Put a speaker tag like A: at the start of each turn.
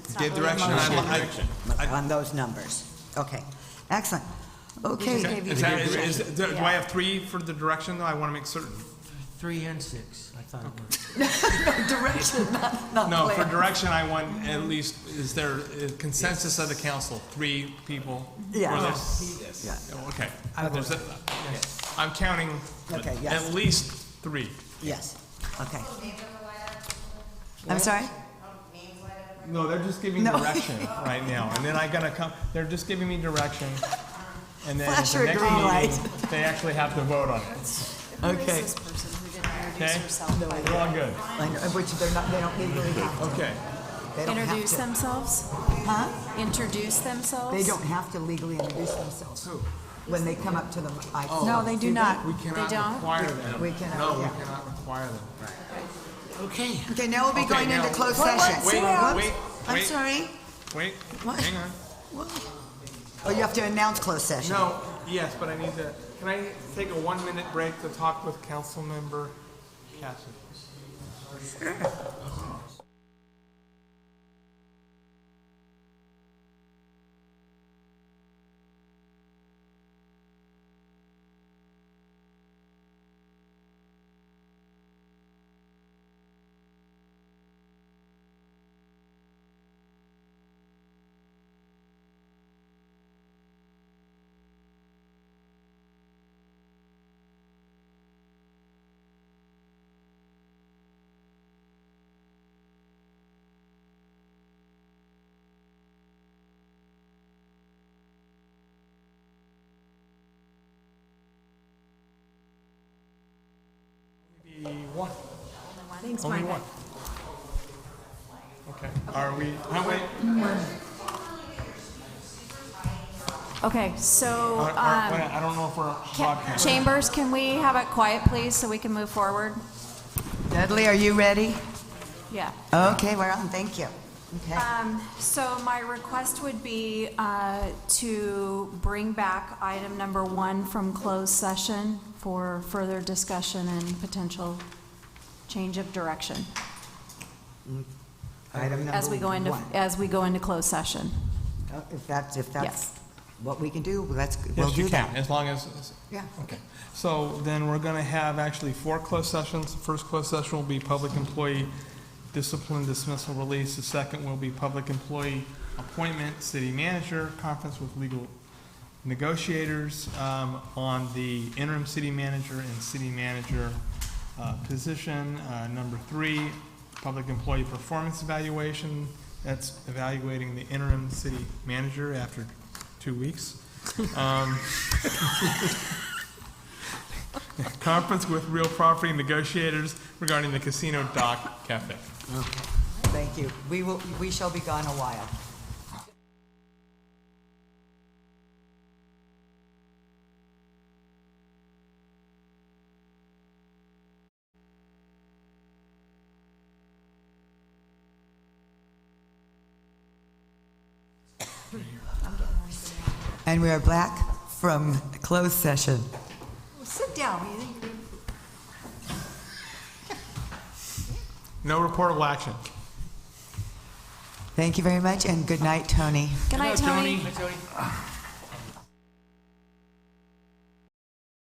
A: It's not
B: Gave
A: really a
B: direction, and
A: motion.
B: I, li- I- I-
C: on those numbers. Okay, excellent. Okay,
A: gave you
B: is
A: the
B: that- is-
A: direction.
B: do do
A: Yeah.
B: I have three for the direction, though? I want to make certain.
D: Three and six, I thought it was.
C: direction, not, not
B: No, for
C: plan.
B: direction, I want at least, is there a consensus of the council, three people? for
C: Yeah.
B: this?
C: Yeah.
B: Oh, Okay.
D: I
B: There's
D: vote
B: a- I'm counting
C: Okay, yes.
B: at least three.
C: Yes, okay. I'm sorry?
B: No, they're just giving
C: No.
B: direction right now, and then I gotta come, they're just giving me direction, and then at
C: Flash
B: the
C: your
B: next
C: green
B: meeting, they actually have to vote on it.
C: Okay.
A: This person who didn't introduce
B: Okay.
A: herself. by
B: We're all good.
C: I know, Which they're not, they don't legally have to.
B: Okay.
C: They don't have
A: Introduce
C: to.
A: themselves?
C: Huh?
A: Introduce themselves?
C: They don't have to legally introduce themselves. When they come up to the mic.
A: No, they do
C: See
A: not.
C: that?
B: We
A: They
B: cannot
A: don't?
B: require them.
C: We cannot,
B: No, we
C: yeah.
B: cannot require them.
D: Okay,
C: Okay, now we'll be
B: Okay,
C: going into
B: now-
C: closed
A: What-
C: session.
A: what's Wait,
B: that? wait,
C: I'm
B: wait.
C: sorry?
B: Wait,
C: What?
B: hang on.
C: Oh, you have to announce closed session.
B: No, yes, but I need to, can I take a one-minute break to talk with council member Cassidy? Maybe one,
A: Thanks,
B: only
A: Margaret.
B: one. Okay, are we, oh, wait,
A: Okay, so,
B: are-
A: um,
B: are- wait, I don't know if we're
A: ca-
B: broadcasting.
A: Chambers, can we have it quiet, please, so we can move forward?
C: Dudley, are you ready?
A: Yeah.
C: Okay, we're on, thank you. Okay.
A: Uh, So my request would be uh, to bring back item number one from closed session for further discussion and potential change of direction
C: Item
A: as we go
C: number
A: into,
C: one.
A: as we go into closed session.
C: Oh, If that's, if
A: Yes.
C: that's what we can do, let's, we'll
B: Yes, you
C: do
B: can,
C: that.
B: as long as,
C: Yeah.
B: Okay, so then we're going to have actually four closed sessions. The first closed session will be public employee discipline dismissal release. The second will be public employee appointment, city manager, conference with legal negotiators um, on the interim city manager and city manager uh, position. Uh, Number three, public employee performance evaluation. That's evaluating the interim city manager after two weeks. Um, conference with real property negotiators regarding the casino dock cafe.
C: Okay, thank you. We will, we shall be gone a while. And we are back from closed session. Sit down.
B: No reportable action.
C: Thank you very much, and good night, Tony.
A: Good night, Tony.